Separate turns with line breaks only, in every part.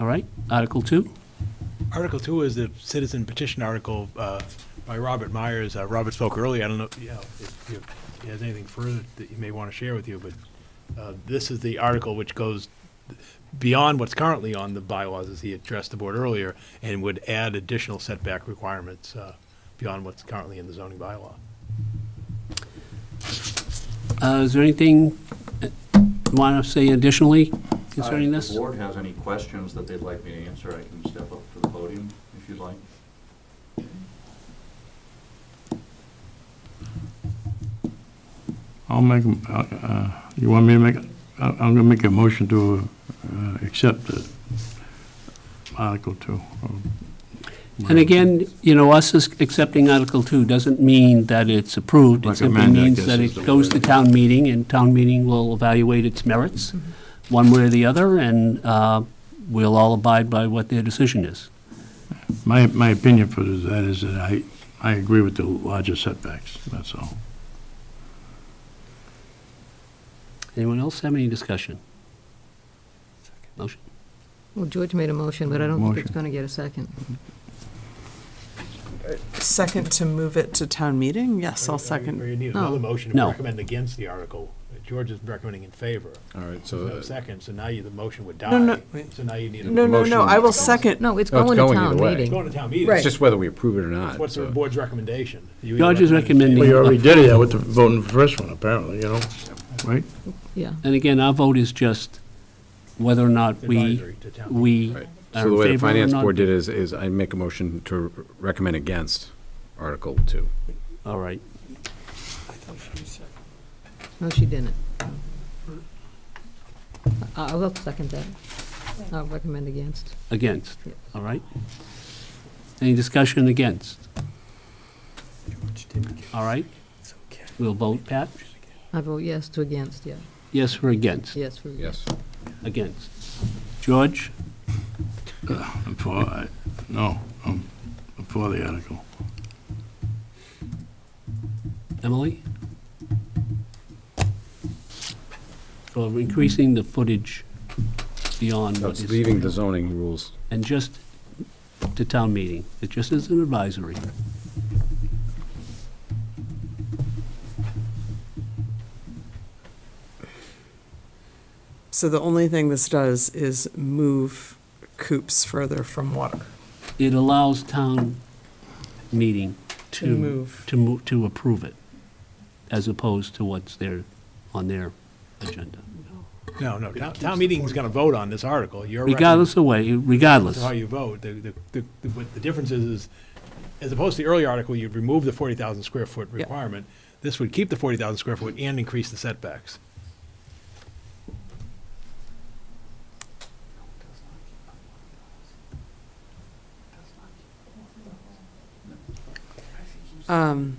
All right, Article 2?
Article two is the citizen petition article uh, by Robert Myers. Uh, Robert spoke earlier. I don't know, you know, if you- if he has anything further that you may want to share with you, but uh, this is the article which goes beyond what's currently on the bylaws, as he addressed the board earlier, and would add additional setback requirements uh, beyond what's currently in the zoning bylaw.
Uh, Is there anything uh, you want to say additionally concerning
Uh, If
this?
the board has any questions that they'd like me to answer, I can step up to the podium if you'd like.
I'll make, a- uh, uh, you want me to make, I- I'm going to make a motion to uh, accept it. Article 2.
And again, you know, us is accepting Article 2 doesn't mean that it's approved. It simply
Recommend, I
means
guess,
that
is
it
the
goes to
word.
town meeting, and town meeting will evaluate its merits, one way or the other, and uh, we'll all abide by what their decision is.
My, my opinion for that is that I, I agree with the larger setbacks, that's all.
Anyone else have any discussion? Motion?
Well, George made a motion, but I don't think it's
Motion.
going to get a second.
Second to move it to town meeting? Yes, I'll
Or
second.
you need
No.
another motion to
No.
recommend against the article. George is recommending in favor.
All right,
There's
so
no
uh,
second, so now you, the motion would die.
No, no.
So now you need a.
No, no, no, I will
Motion.
second.
No, it's
No, Oh, it's
going to
going
town
either way.
It's
meeting.
going to town meeting.
Right.
it's just whether we approve it or not.
What's the
so-
board's recommendation? You either
George is
recommend it-
recommending- Well, you already
did that with the voting for the first one, apparently, you know? Right?
Yeah.
And again, our vote is just whether or not we,
Advisory to town.
we
Right.
are
So the
in
way the
favor or
finance
not.
board did is, is I make a motion to recommend against Article Two.
All right.
No, she didn't. I I will second that. I'll recommend against.
Against,
Yes.
all right? Any discussion against? All right? We'll vote, Pat?
I vote yes to against, yeah.
Yes or against?
Yes for against.
Yes.
Against. George?
I'm for, I- no, I'm I'm for the article.
Emily? For increasing the footage beyond what
That's
is...
leaving the zoning rules.
And just to town meeting. It just is an advisory.
So the only thing this does is move coops further from water.
It allows town meeting to,
To move.
to move, to approve it, as opposed to what's there, on their agenda.
No, no, town, town meeting's gonna vote on this article. You're.
Regardless of way, regardless.
How you vote. The, the, the, the- what the difference is, is as opposed to the earlier article, you'd remove the forty thousand square foot
Yeah.
requirement. This would keep the forty thousand square foot and increase the setbacks.
Um,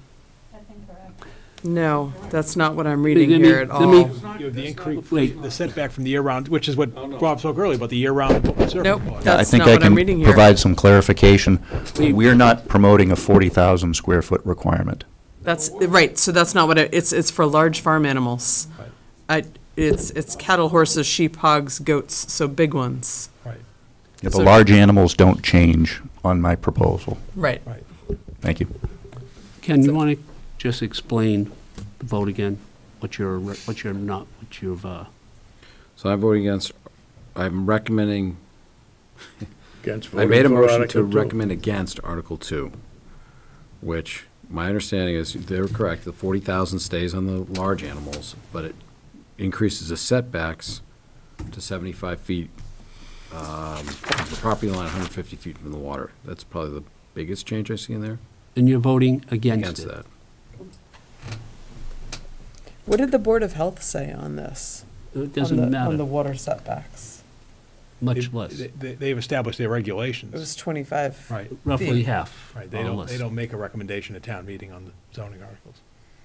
No, that's not what I'm reading
Let me-
here at
let me-
all.
You have the increase,
Wait.
the setback from the year round, which is what Rob spoke earlier about the year round open service.
Nope,
law.
that's not what I'm reading
I think I can
here.
provide some clarification. We're not promoting a 40,000 square foot requirement.
That's, right, so that's not what, it- it's, it's for large farm animals.
Right.
I, it's, it's cattle, horses, sheep, hogs, goats, so big ones.
Right,
Yeah, The
So-
large animals don't change on my proposal.
Right.
right.
Thank you.
Ken, you want to just explain the vote again? What you're, re- what you're not, what you've, uh,
So I'm voting against, I'm recommending,
Against
I made a
voting for
motion to
Article two.
recommend against Article Two, which, my understanding is, they're correct, the forty thousand stays on the large animals, but it increases the setbacks to seventy-five feet, um, the property line hundred fifty feet from the water. That's probably the biggest change I see in there,
and you're voting against
against
it.
that.
What did the Board of Health say on this?
It
on
doesn't
the, On the
matter,
water setbacks.
much
They-
less,
They, they've established their
It was
regulations.
25.
Right,
roughly half,
right. They
or
don't,
less.
they don't make a recommendation at town meeting on the zoning articles.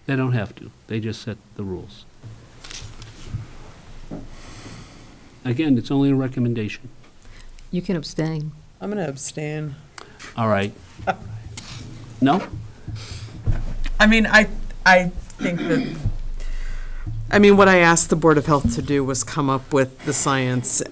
They don't have to. They just set the rules. Again, it's only a recommendation.
You can abstain.
I'm going to abstain.
All right. No?
I mean, I, I think that, I mean, what I asked the Board of Health to do was come up with the science